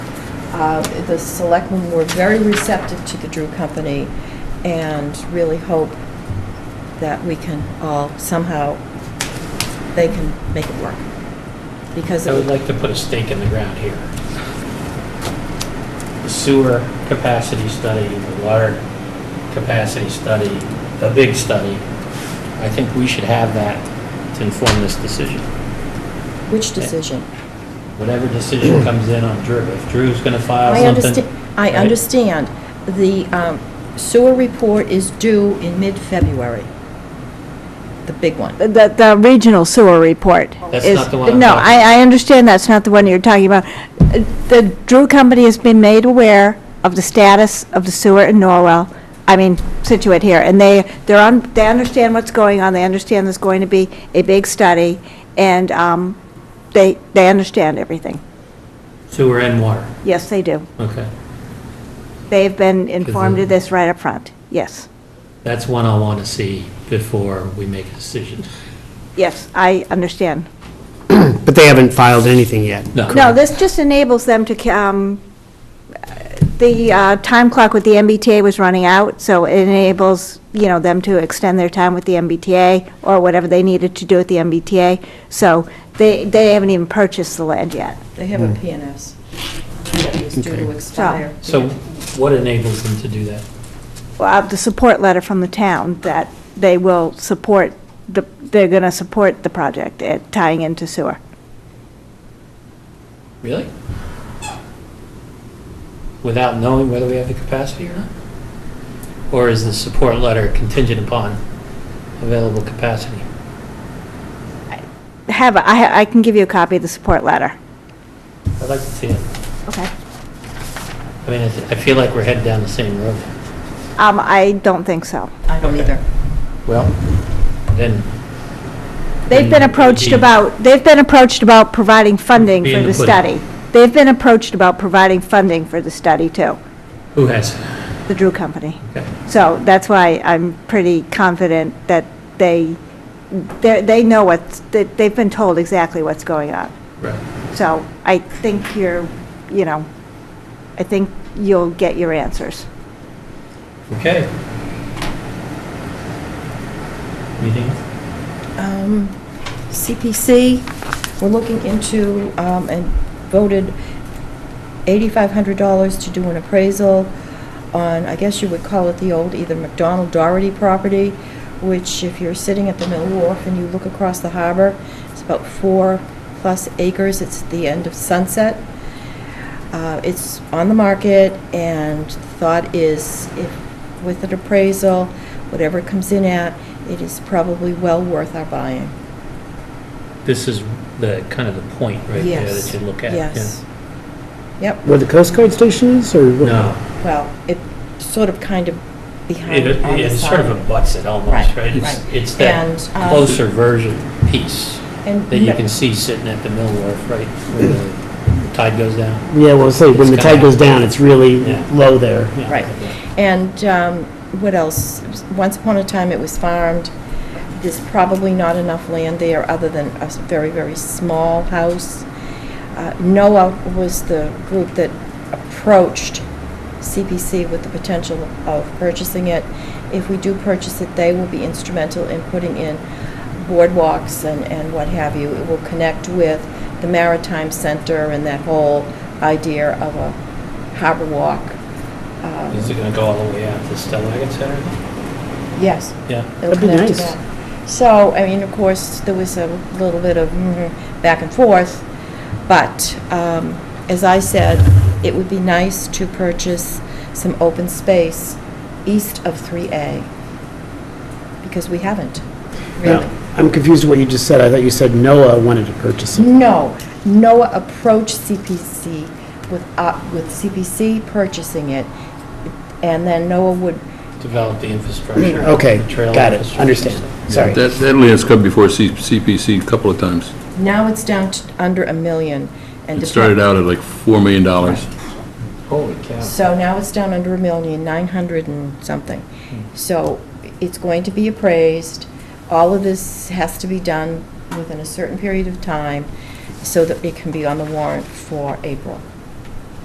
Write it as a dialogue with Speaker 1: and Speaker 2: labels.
Speaker 1: Uh, The selectmen were very receptive to the Drew Company and really hope that we can all somehow, they can make it work. Because
Speaker 2: I would
Speaker 1: it
Speaker 2: like to put a stake in the ground here. The sewer capacity study, the water capacity study, the big study, I think we should have that to inform this decision.
Speaker 1: which decision?
Speaker 2: Whatever decision comes in on Drew, if Drew's going to file
Speaker 1: I
Speaker 2: something.
Speaker 1: understand, I
Speaker 2: right?
Speaker 1: understand. The um, sewer report is due in mid-February, the big one.
Speaker 3: The, the regional sewer report
Speaker 2: That's
Speaker 3: is-
Speaker 2: not the one I'm
Speaker 3: No,
Speaker 2: talking
Speaker 3: I, I understand that's not the one you're talking about. The Drew Company has been made aware of the status of the sewer in Norwell, I mean, Situate here, and they, they're on, they understand what's going on, they understand there's going to be a big study, and, um, they, they understand everything.
Speaker 2: Sewer and water,
Speaker 3: Yes, they do.
Speaker 2: okay.
Speaker 3: They've been informed of
Speaker 2: they-
Speaker 3: this right up front, yes.
Speaker 2: That's one I want to see before we make a decision.
Speaker 3: Yes, I understand.
Speaker 4: But they haven't filed anything yet.
Speaker 2: No.
Speaker 3: No, this just enables them to, ca- um, the uh, time clock with the MBTA was running out, so it enables, you know, them to extend their time with the MBTA or whatever they needed to do with the MBTA. So they, they haven't even purchased the land yet.
Speaker 1: They have a
Speaker 2: Hmm.
Speaker 1: PNS that is due to
Speaker 4: Okay.
Speaker 1: expire.
Speaker 2: So what enables them to do that?
Speaker 3: Well, uh, the support letter from the town that they will support, the they're going to support the project uh, tying into sewer.
Speaker 2: Really? Without knowing whether we have the capacity or not? Or is the support letter contingent upon available capacity?
Speaker 3: Have, a- I ha- I can give you a copy of the support letter.
Speaker 2: I'd like to see it.
Speaker 3: Okay.
Speaker 2: I mean, I th- I feel like we're headed down the same road.
Speaker 3: Um, I don't think so.
Speaker 1: I don't either.
Speaker 2: Well, then.
Speaker 3: They've been approached about, they've been approached about providing funding for
Speaker 2: Being
Speaker 3: the
Speaker 2: put-
Speaker 3: study. They've been approached about providing funding for the study, too,
Speaker 2: Who has?
Speaker 3: the Drew Company.
Speaker 2: Okay.
Speaker 3: So that's why I'm pretty confident that they, they're- they know what's, that they've been told exactly what's going on.
Speaker 2: Right.
Speaker 3: So I think you're, you know, I think you'll get your answers.
Speaker 2: Okay. Anything else?
Speaker 1: Um, CPC, we're looking into, um, and voted $8,500 to do an appraisal on, I guess you would call it the old either McDonald Doherty property, which if you're sitting at the Mill Wharf and you look across the harbor, it's about four-plus acres, it's at the end of Sunset. Uh, It's on the market, and the thought is, if, with an appraisal, whatever it comes in at, it is probably well worth our buying.
Speaker 2: This is the, kind of the point right there
Speaker 1: Yes.
Speaker 2: that you look at. yeah.
Speaker 1: Yes. Yep,
Speaker 4: Where the Coast Guard station is, or? what?
Speaker 2: No.
Speaker 1: well, it sort of kind of behind
Speaker 2: It
Speaker 1: on the side.
Speaker 2: it sort of abuts it almost,
Speaker 1: Right,
Speaker 2: right? It's-
Speaker 1: right.
Speaker 2: It's that
Speaker 1: And, um,
Speaker 2: closer version piece
Speaker 1: And
Speaker 2: that you
Speaker 1: no-
Speaker 2: can see sitting at the mill wharf, right? Where the tide goes down.
Speaker 4: Yeah, well, say, when the
Speaker 2: It's
Speaker 4: tide
Speaker 2: kinda-
Speaker 4: goes down, it's really
Speaker 2: Yeah.
Speaker 4: low there.
Speaker 2: Yeah.
Speaker 1: Right. And um, what else? Once upon a time, it was farmed. There's probably not enough land there, other than a s- very, very small house. Uh, NOAA was the group that approached CPC with the potential of purchasing it. If we do purchase it, they will be instrumental in putting in boardwalks and, and what have you. It will connect with the Maritime Center and that whole idea of a harbor walk. Um,
Speaker 2: Is it going to go all the way out to Stellagat Center?
Speaker 1: Yes.
Speaker 2: Yeah.
Speaker 1: it'll
Speaker 4: That'd be
Speaker 1: connect to
Speaker 4: nice.
Speaker 1: that. So, I mean, of course, there was a little bit of mm, back and forth, but um, as I said, it would be nice to purchase some open space east of 3A, because we haven't, really.
Speaker 4: Now, I'm confused with what you just said. I thought you said NOAA wanted to purchase it.
Speaker 1: No, NOAA approached CPC with, uh, with CPC purchasing it, and then NOAA would
Speaker 2: Develop the
Speaker 1: Mm,
Speaker 2: infrastructure.
Speaker 4: Okay,
Speaker 2: the trail
Speaker 4: got it,
Speaker 2: infrastructure.
Speaker 4: understand. Sorry.
Speaker 5: That, that land's come before C- CPC a couple of times.
Speaker 1: Now it's down to under a million. and
Speaker 5: It started out at like $4 million.
Speaker 2: Holy cow.
Speaker 1: So now it's down under a million, nine hundred and something. So it's going to be appraised. All of this has to be done within a certain period of time so that it can be on the warrant for April.